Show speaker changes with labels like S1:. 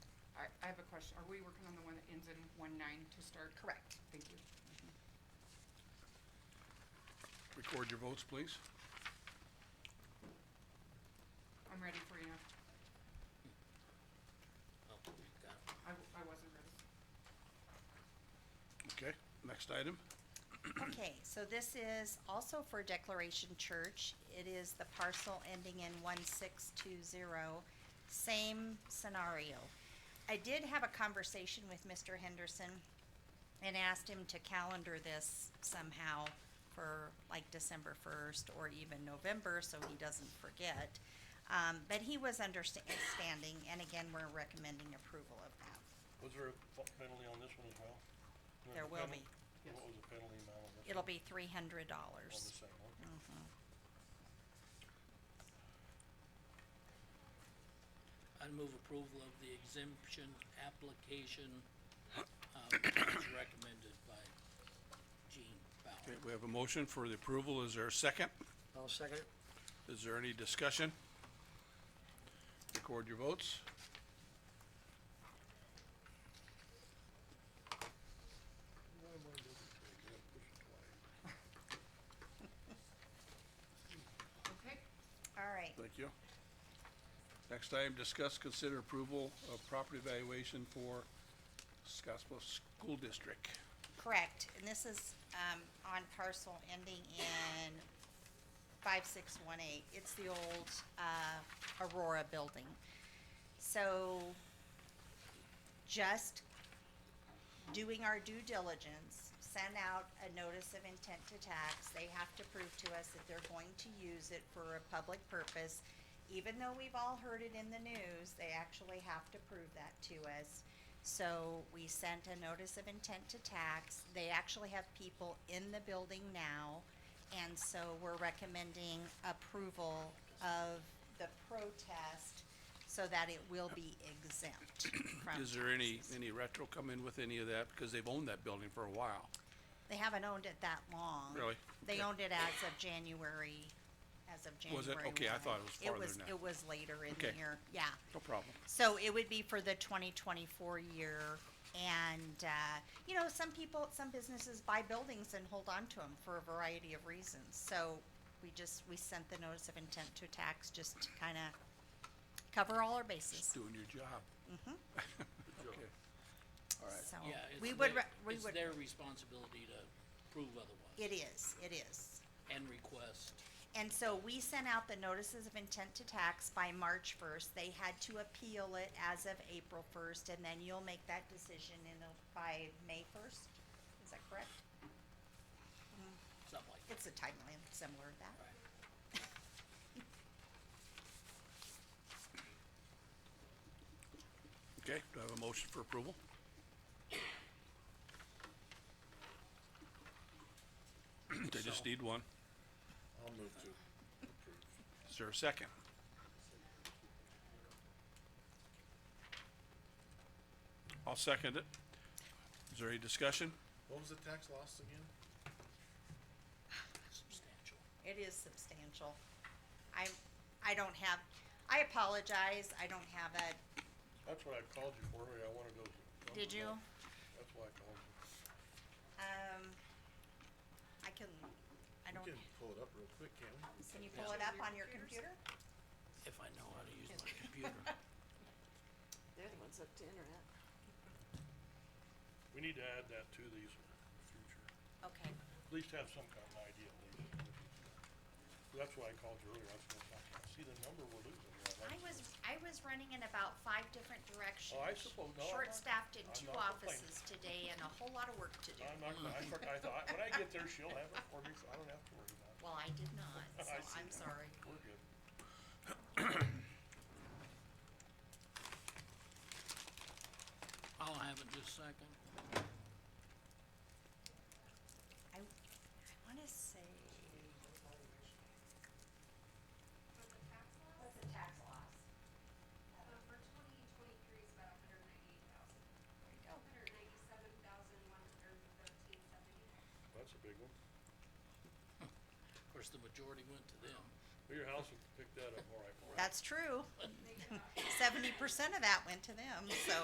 S1: question, are we working on the one that ends in one nine to start?
S2: Correct.
S1: Thank you.
S3: Record your votes, please.
S1: I'm ready for you now.
S4: Oh, we've got it.
S1: I, w- I wasn't ready.
S3: Okay, next item.
S2: Okay, so this is also for Declaration Church. It is the parcel ending in one six two zero, same scenario. I did have a conversation with Mr. Henderson and asked him to calendar this somehow for like December first or even November, so he doesn't forget. Um, but he was understanding, and again, we're recommending approval of that.
S4: Was there a fa- penalty on this one as well? was a
S2: There will
S4: penal-
S2: be.
S1: Yes.
S4: What was the penalty amount on this?
S2: It'll
S4: one?
S2: be three
S4: On
S2: hundred
S4: the
S2: dollars.
S4: same
S2: Mm-hmm.
S4: one?
S5: I'd move approval of the exemption application, uh, as recommended by Gene
S3: Okay,
S5: Bauer.
S3: we have a motion for the approval. Is there a second?
S6: I'll second it.
S3: Is there any discussion? Record your votes.
S1: Okay,
S2: All right,
S3: Thank you. Next item, discuss, consider approval of property valuation for Scottsbluff School District.
S2: Correct, and this is, um, on parcel ending in five six one eight, it's the old, uh, Aurora building. So, just doing our due diligence, send out a notice of intent to tax, they have to prove to us that they're going to use it for a public purpose. Even though we've all heard it in the news, they actually have to prove that to us. So we sent a notice of intent to tax, they actually have people in the building now, and so we're recommending approval of the protest so that it will be exempt from
S3: Is there any,
S2: taxes.
S3: any retro come in with any of that? Because they've owned that building for a while.
S2: They haven't owned it that long.
S3: Really?
S2: They
S3: Okay.
S2: owned it as of January, as of January
S3: Was it? Okay, I
S2: 1.
S3: thought it was farther than that.
S2: It was, it was later in the
S3: Okay.
S2: year, yeah.
S3: No problem.
S2: So it would be for the twenty twenty-four year, and, uh, you know, some people, some businesses buy buildings and hold on to them for a variety of reasons. So we just, we sent the notice of intent to tax just to kinda cover all our bases,
S3: Doing your job. Okay.
S2: so.
S5: Yeah,
S2: We
S5: it's
S2: would,
S5: their,
S2: re- we
S5: it's
S2: would,
S5: their responsibility to prove otherwise
S2: it is, it is.
S5: and request.
S2: And so we sent out the notices of intent to tax by March first. They had to appeal it as of April first, and then you'll make that decision in, a- by May first. Is that correct?
S5: Something like that,
S2: It's a timeline similar to that.
S5: right?
S3: Okay, do I have a motion for approval? They just need one.
S4: I'll move to.
S3: Is there a second? I'll second it. Is there any discussion?
S7: What was the tax loss again?
S5: Substantial.
S2: It is substantial. I, I don't have, I apologize, I don't have it.
S4: That's what I called you for, I wanna go. to-
S2: Did you?
S4: That's why I called you.
S2: Um, I can, I don't,
S7: We can pull it up real quick, can we?
S2: can you pull it up on your computer?
S5: If I know how to use my computer.
S8: They're the ones up to internet.
S4: We need to add that to these in the future.
S2: Okay,
S4: At least have some kind of idea at least. That's why I called you earlier, I was gonna talk, I see the number we're losing. here. I'd
S2: I
S4: like to-
S2: was, I was running in about five different directions.
S4: Oh, I suppose, no, I'm not-
S2: Short-staffed in
S4: I'm
S2: two
S4: not complaining.
S2: offices today and a whole lot of work to do.
S4: I'm not, gonna- I forgot, I thought, when I get there, she'll have it for me, so I don't have to worry about it.
S2: Well, I did not,
S4: I
S2: so
S4: see
S2: I'm
S4: that.
S2: sorry.
S4: We're good.
S5: I'll have it just a second.
S2: I, I wanna say. What's the tax loss?
S9: Uh, for twenty twenty-three is about a hundred ninety-eight thousand.
S2: There you go.
S9: Hundred ninety-seven thousand, one hundred thirteen seventy-nine.
S4: That's a big one.
S5: Of course, the majority went to them.
S4: Well, Your house would pick that up all right. all right.
S2: That's true. Seventy percent of that went to them, so.